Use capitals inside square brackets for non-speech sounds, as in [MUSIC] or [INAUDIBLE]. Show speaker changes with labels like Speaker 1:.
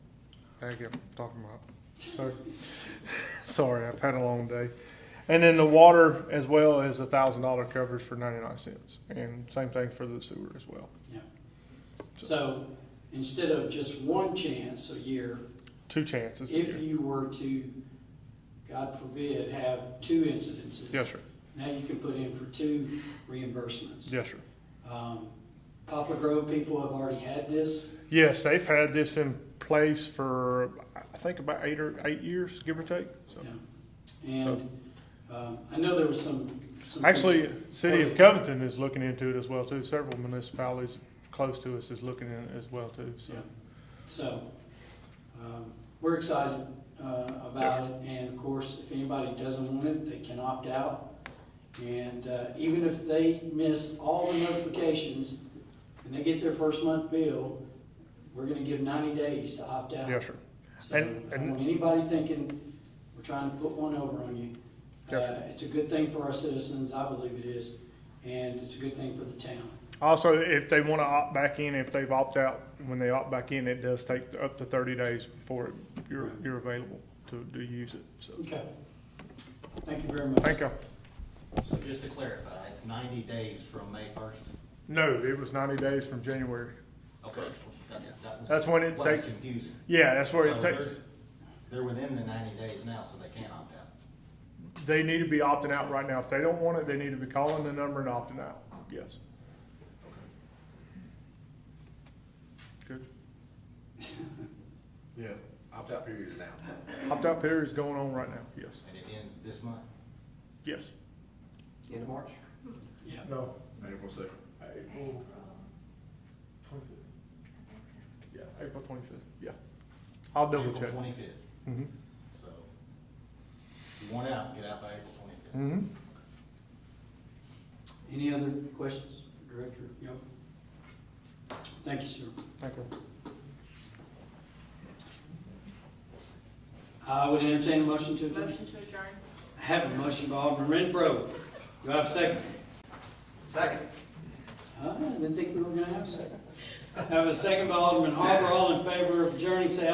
Speaker 1: I kept talking about. Sorry. [LAUGHS] Sorry, I've had a long day. And then the water as well is a thousand dollar coverage for ninety-nine cents. And same thing for the sewer as well.
Speaker 2: Yeah. So instead of just one chance a year,
Speaker 1: Two chances. a year.
Speaker 2: if you were to, God forbid, have two incidences.
Speaker 1: Yes, sir.
Speaker 2: Now you can put in for two reimbursements.
Speaker 1: Yes, sir.
Speaker 2: Um, Poplar Grove people have already had this.
Speaker 1: Yes, they've had this in place for, I think about eight or eight years, give or take. So,
Speaker 2: Yeah. And um, I know there was some. some
Speaker 1: Actually, City of Covington is looking into it as well too. Several municipalities close to us is looking in it as well too, so.
Speaker 2: Yeah. So, um, we're excited uh, about it, and of course, if anybody doesn't want it, they can opt out. And uh, even if they miss all the notifications and they get their first month bill, we're gonna give ninety days to opt out.
Speaker 1: Yes, sir.
Speaker 2: So, I
Speaker 1: And-
Speaker 2: don't
Speaker 1: and-
Speaker 2: want anybody thinking we're trying to put one over on you.
Speaker 1: Yes,
Speaker 2: Uh, It's a good thing for our citizens, I believe it is, and it's a good thing for the town.
Speaker 1: Also, if they want to opt back in, if they've opted out, when they opt back in, it does take up to thirty days before it- you're, you're available to, to use it. So,
Speaker 2: Okay. Thank you very much.
Speaker 1: thank you.
Speaker 3: So just to clarify, it's ninety days from May first?
Speaker 1: No, it was ninety days from January.
Speaker 3: Okay, that's, that was.
Speaker 1: That's when it
Speaker 3: what was
Speaker 1: takes-
Speaker 3: Confusing.
Speaker 1: Yeah, that's where it
Speaker 3: So
Speaker 1: takes,
Speaker 3: They're they're within the ninety days now, so they can opt out.
Speaker 1: they need to be opting out right now. If they don't want it, they need to be calling the number and opting out. Yes. Good.
Speaker 4: Yeah, opt-out period is now.
Speaker 1: Opt out period is going on right now. Yes,
Speaker 3: And it ends this month?
Speaker 1: yes.
Speaker 3: End of March?
Speaker 2: Yeah.
Speaker 1: No.
Speaker 4: April second.
Speaker 1: April twenty-fifth. Yeah, April twenty-fifth, yeah. I'll double check.
Speaker 3: April twenty-fifth,
Speaker 1: Mm-hmm.
Speaker 3: so. If you want out, get out by April twenty-fifth.
Speaker 1: Mm-hmm.
Speaker 2: Any other questions, Director? Yep. Thank you, sir.
Speaker 1: Thank you.
Speaker 2: I would entertain a motion to adjourn.
Speaker 5: Motion to adjourn.
Speaker 2: I have a motion by Alderman Renfro. Do I have a second?
Speaker 3: Second.
Speaker 2: Ah, I didn't think we were gonna have a second. I have a second by Alderman Harper. All in favor of adjourning, say